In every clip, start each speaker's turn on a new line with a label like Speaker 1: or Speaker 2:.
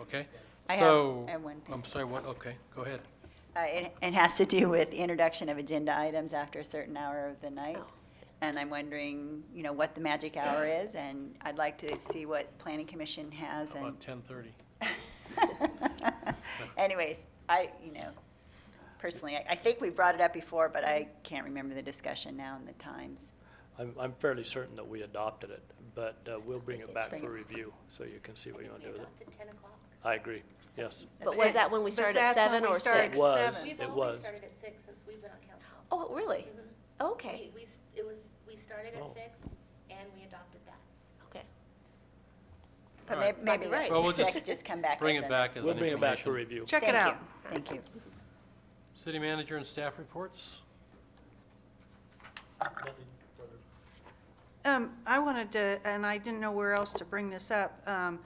Speaker 1: Okay?
Speaker 2: I have-
Speaker 1: So-
Speaker 2: I have one thing.
Speaker 1: I'm sorry, what, okay, go ahead.
Speaker 2: Uh, It it has to do with introduction of agenda items after a certain hour of the night.
Speaker 3: Oh.
Speaker 4: Oh,
Speaker 2: And I'm wondering, you know, what the magic hour is, and I'd like to see what Planning Commission has and.
Speaker 1: About 10:30.
Speaker 2: Anyways, I, you know, personally, I- I think we brought it up before, but I can't remember the discussion now and the times.
Speaker 5: I'm, I'm fairly certain that we adopted it, but uh, we'll bring it back
Speaker 2: Bring it.
Speaker 5: for review, so you can see what you want to do with it.
Speaker 6: adopted 10 o'clock.
Speaker 5: I agree, yes.
Speaker 4: But was that when we
Speaker 3: But
Speaker 4: started at
Speaker 3: that's when
Speaker 4: seven
Speaker 3: we
Speaker 4: or
Speaker 3: started
Speaker 4: six?
Speaker 5: It was,
Speaker 3: seven.
Speaker 6: We've
Speaker 5: it
Speaker 6: always
Speaker 5: was.
Speaker 6: started at 6 since we've been on council.
Speaker 4: Oh, really?
Speaker 6: Mhm.
Speaker 4: Okay,
Speaker 6: We, we s- it was, we started at
Speaker 5: Oh.
Speaker 6: 6 and we adopted that.
Speaker 4: okay.
Speaker 2: But
Speaker 1: All right.
Speaker 2: may- maybe
Speaker 4: Might
Speaker 2: that
Speaker 4: be
Speaker 1: Well, we'll
Speaker 2: that
Speaker 1: just
Speaker 2: could just come back.
Speaker 1: Bring
Speaker 2: as
Speaker 1: it
Speaker 2: a-
Speaker 1: back as an
Speaker 5: We'll bring it back for
Speaker 1: information.
Speaker 5: review.
Speaker 3: Check
Speaker 2: Thank
Speaker 3: it
Speaker 2: you.
Speaker 3: out.
Speaker 2: Thank you.
Speaker 1: City manager and staff reports?
Speaker 3: Um, I wanted to, and I didn't know where else to bring this up. Um,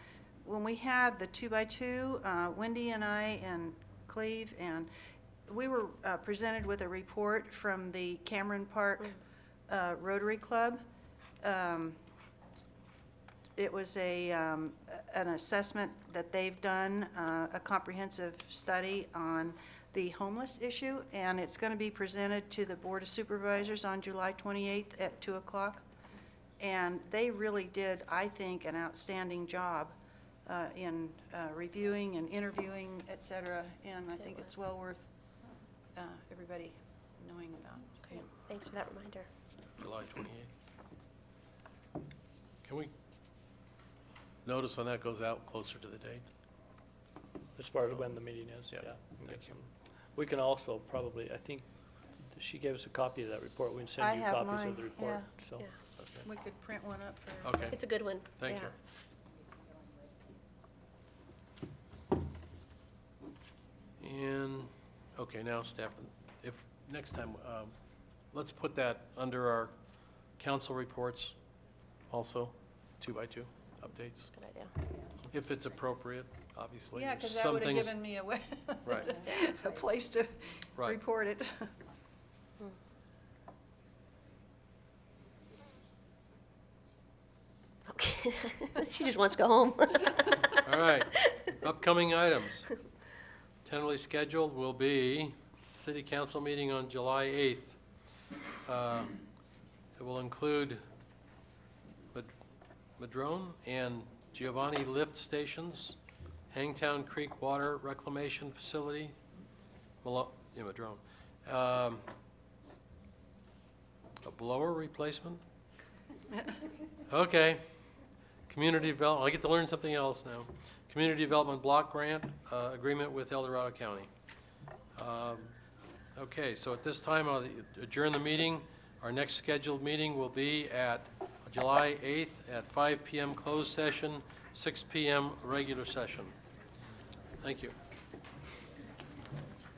Speaker 3: when we had the two-by-two, uh, Wendy and I and Cleve and, we were, uh, presented with a report from the Cameron Park, uh, Rotary Club. Um, it was a, um, a- an assessment that they've done, uh, a comprehensive study on the homeless issue, and it's going to be presented to the Board of Supervisors on July 28th at 2 o'clock. And they really did, I think, an outstanding job uh, in uh, reviewing and interviewing, et cetera, and I think it's well worth uh, everybody knowing about.
Speaker 4: Great. Thanks for that reminder.
Speaker 1: July 28th. Can we, notice when that goes out closer to the date?
Speaker 5: As far as when the meeting is, yeah.
Speaker 1: Yeah,
Speaker 5: we can
Speaker 1: thank
Speaker 5: get some- We can also probably, I think, she gave us a copy of that report. We can
Speaker 3: I
Speaker 5: send you
Speaker 3: have
Speaker 5: copies
Speaker 3: mine,
Speaker 5: of the report,
Speaker 3: yeah.
Speaker 5: so.
Speaker 4: Yeah.
Speaker 1: Okay.
Speaker 3: We could print one up for everybody.
Speaker 1: Okay,
Speaker 4: It's a good one.
Speaker 1: thank
Speaker 4: Yeah.
Speaker 1: you. And, okay, now staff, if, next time, um, let's put that under our council reports also, two by two updates,
Speaker 4: Good idea.
Speaker 1: if it's appropriate, obviously.
Speaker 3: Yeah,
Speaker 1: There's
Speaker 3: because that
Speaker 1: some
Speaker 3: would have
Speaker 1: things-
Speaker 3: given me a, way-
Speaker 1: Right.
Speaker 3: a place to
Speaker 1: Right.
Speaker 3: report it.
Speaker 4: Okay. She just wants to go home.
Speaker 1: All right, upcoming items. Tentatively scheduled will be city council meeting on July 8th. Uh, It will include Mad- Madrone and Giovanni lift stations, Hangtown Creek Water Reclamation Facility, Malo- yeah, Madrone, Um, a blower replacement? Okay. Community development, I get to learn something else now. Community Development Block Grant, uh, agreement with El Dorado County. Um, Okay, so at this time, I'll adjourn the meeting. Our next scheduled meeting will be at July 8th at 5 PM closed session, 6 PM regular session. Thank you.